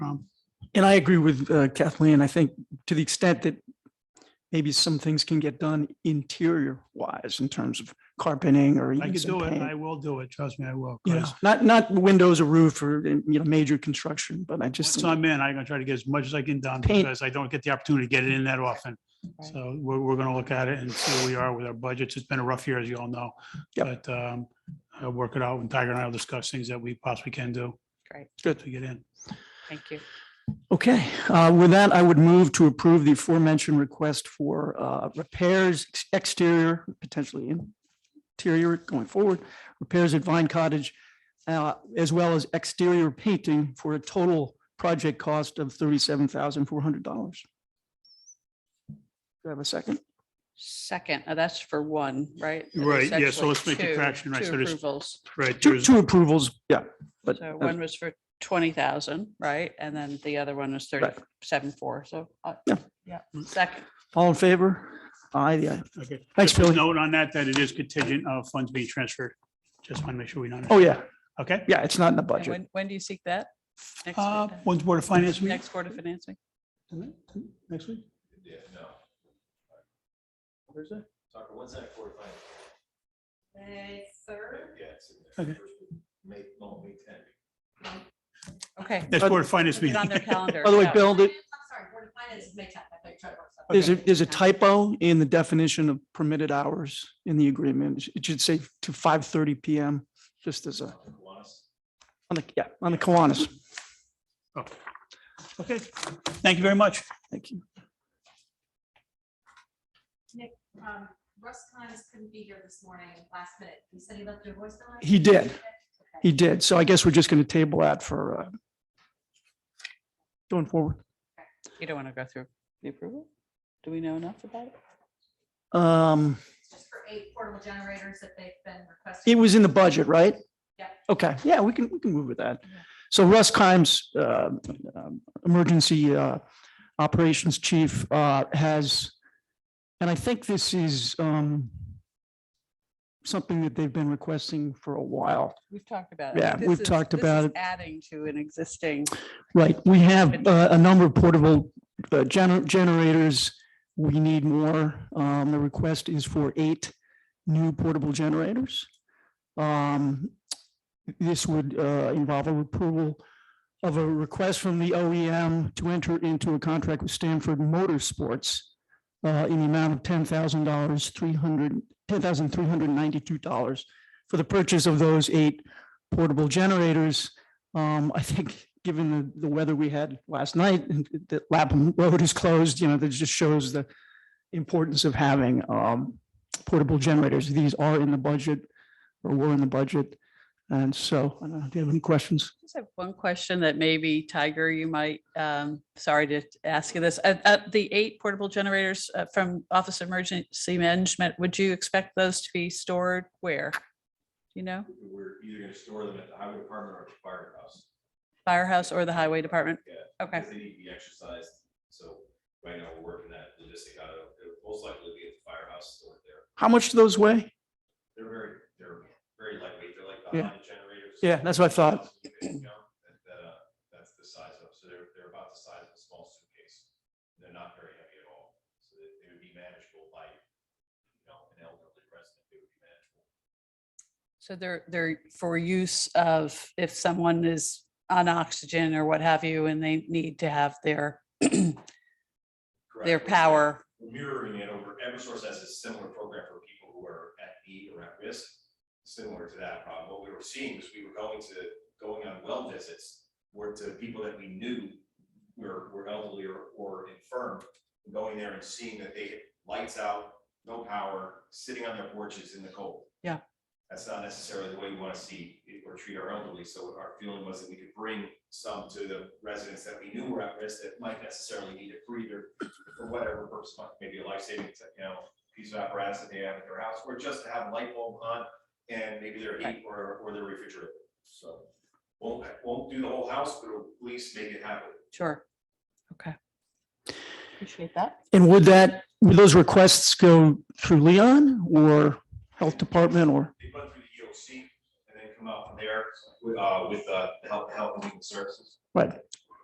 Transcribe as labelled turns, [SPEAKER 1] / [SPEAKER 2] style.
[SPEAKER 1] Um, And I agree with uh, Kathleen. I think to the extent that maybe some things can get done interior wise in terms of carpeting or
[SPEAKER 2] I
[SPEAKER 1] even
[SPEAKER 2] could
[SPEAKER 1] some
[SPEAKER 2] do it.
[SPEAKER 1] paint.
[SPEAKER 2] I will do it. Trust me, I will.
[SPEAKER 1] You know,
[SPEAKER 2] 'cause
[SPEAKER 1] not, not windows or roof or, you know, major construction, but I just,
[SPEAKER 2] Once
[SPEAKER 1] think-
[SPEAKER 2] I'm in, I'm gonna try to get as much as I can done
[SPEAKER 1] Paint.
[SPEAKER 2] because I don't get the opportunity to get it in that often.
[SPEAKER 3] Right.
[SPEAKER 2] So we're, we're gonna look at it and see where we are with our budgets. It's been a rough year, as you all know.
[SPEAKER 1] Yep.
[SPEAKER 2] But um, I'll work it out and Tiger and I will discuss things that we possibly can do
[SPEAKER 3] Great,
[SPEAKER 2] to get in.
[SPEAKER 3] thank you.
[SPEAKER 1] okay. Uh, With that, I would move to approve the aforementioned request for uh, repairs ex- exterior, potentially interior going forward, repairs at Vine Cottage, uh, as well as exterior painting for a total project cost of $37,400. Do I have a second?
[SPEAKER 3] Second, uh, that's for one, right? So there's
[SPEAKER 2] Right, yeah, so
[SPEAKER 3] actually
[SPEAKER 2] let's make it
[SPEAKER 3] two-
[SPEAKER 2] fraction, right,
[SPEAKER 3] Two
[SPEAKER 2] so there's-
[SPEAKER 3] approvals.
[SPEAKER 2] Right,
[SPEAKER 1] Two, two approvals, yeah, but
[SPEAKER 3] So
[SPEAKER 1] uh,
[SPEAKER 3] one was for twenty thousand, right? And then the other one was
[SPEAKER 1] Right.
[SPEAKER 3] thirty-seven, four, so. uh,
[SPEAKER 1] Yeah.
[SPEAKER 3] Yeah, second,
[SPEAKER 1] all in favor? Aye, the aye.
[SPEAKER 2] Okay.
[SPEAKER 1] Thanks,
[SPEAKER 2] Just a
[SPEAKER 1] Billy.
[SPEAKER 2] Note on that, that it is contingent of funds being transferred. Just want to make sure we know.
[SPEAKER 1] Oh, yeah,
[SPEAKER 2] Okay.
[SPEAKER 1] yeah, it's not in the
[SPEAKER 3] and
[SPEAKER 1] budget.
[SPEAKER 3] when, when do you seek that? Next week,
[SPEAKER 2] Uh,
[SPEAKER 3] then?
[SPEAKER 2] When's Board of Finance meeting?
[SPEAKER 3] Next Board of Financing?
[SPEAKER 2] Next week?
[SPEAKER 4] Tucker, when's that quarter final?
[SPEAKER 5] May third,
[SPEAKER 4] Yeah, it's in
[SPEAKER 2] Okay.
[SPEAKER 4] there. First week, May, no, May ten.
[SPEAKER 3] Okay.
[SPEAKER 2] Next
[SPEAKER 1] Uh,
[SPEAKER 2] Board of Finance
[SPEAKER 3] put it
[SPEAKER 2] meeting.
[SPEAKER 3] on their calendar.
[SPEAKER 1] By the way,
[SPEAKER 3] yeah.
[SPEAKER 1] Bill,
[SPEAKER 5] I'm
[SPEAKER 1] did-
[SPEAKER 5] sorry, Board of Finance is May tenth, I thought you tried to work something.
[SPEAKER 1] there's a, there's a typo in the definition of permitted hours in the agreement. It should say to 5:30 PM, just as a,
[SPEAKER 4] Kiwanis.
[SPEAKER 1] on the, yeah, on the Kiwanis.
[SPEAKER 2] Okay, thank you very much.
[SPEAKER 1] Thank you.
[SPEAKER 5] Um, Russ Connors couldn't be here this morning, last minute, he said he left your voice on.
[SPEAKER 1] He did. He did. So I guess we're just going to table that for uh, going forward.
[SPEAKER 3] You don't want to go through the approval? Do we know enough about it?
[SPEAKER 1] Um,
[SPEAKER 5] It's just for eight portable generators that they've been requesting.
[SPEAKER 1] It was in the budget, right?
[SPEAKER 5] Yeah.
[SPEAKER 1] Okay, yeah, we can, we can move with that. So Russ Kimes, uh, um, Emergency uh, Operations Chief, uh, has, and I think this is um, something that they've been requesting for a while.
[SPEAKER 3] We've talked about it.
[SPEAKER 1] Yeah,
[SPEAKER 3] This
[SPEAKER 1] we've
[SPEAKER 3] is-
[SPEAKER 1] talked
[SPEAKER 3] this is
[SPEAKER 1] about it.
[SPEAKER 3] Adding to an existing,
[SPEAKER 1] Right, we have uh, a number of portable uh, gener- generators. We need more. Um, The request is for eight new portable generators. Um, This would uh, involve a approval of a request from the OEM to enter into a contract with Stanford Motorsports uh, in the amount of ten thousand dollars, three hundred, ten thousand, three hundred ninety-two dollars for the purchase of those eight portable generators. Um, I think, given the, the weather we had last night, and that Lapham Road is closed, you know, that just shows the importance of having, um, portable generators. These are in the budget, or were in the budget. And so, I don't know, do you have any questions?
[SPEAKER 3] I just have one question that maybe Tiger, you might, um, sorry to ask you this. Uh, uh, the eight portable generators uh, from Office of Emergency Management, would you expect those to be stored where? You know,
[SPEAKER 4] We're either gonna store them at the highway department or at the firehouse.
[SPEAKER 3] firehouse or the highway department?
[SPEAKER 4] Yeah.
[SPEAKER 3] Okay,
[SPEAKER 4] Because they need to be exercised, so right now we're working that logistic out of, it'll most likely be at the firehouse stored there.
[SPEAKER 1] How much do those weigh?
[SPEAKER 4] They're very, they're very lightweight, they're like
[SPEAKER 1] Yeah.
[SPEAKER 4] behind the generators.
[SPEAKER 1] Yeah, that's what I thought.
[SPEAKER 4] You know, that- that, uh, That's the size of, so they're, they're about the size of a small suitcase. They're not very heavy at all, so they they would be manageable by, you know, an elderly resident, they would be manageable.
[SPEAKER 3] so they're, they're for use of if someone is on oxygen or what have you, and they need to have their, their
[SPEAKER 4] Correct.
[SPEAKER 3] power.
[SPEAKER 4] We're mirroring it over, Eversource has a similar program for people who are at need or at risk, similar to that problem. What we were seeing is we were going to, going on well visits, were to people that we knew were, were elderly or, or infirm, going there and seeing that they, lights out, no power, sitting on their porches in the cold.
[SPEAKER 3] Yeah.
[SPEAKER 4] That's not necessarily the way we want to see it or treat our elderly, so our feeling was that we could bring some to the residents that we knew were at risk that might necessarily need a breather for whatever purpose, like maybe a life saving, you know, piece of apparatus that they have at their house, or just to have a light bulb on and maybe their heat or, or their refrigerator. So won't, won't do the whole house, but at least make it happen.
[SPEAKER 3] Sure. Okay. Appreciate that.
[SPEAKER 1] And would that, would those requests go through Leon or Health Department or?
[SPEAKER 4] They run through E the EOC and then come out from there with, uh, with, uh, the help, help and human services.
[SPEAKER 1] Right,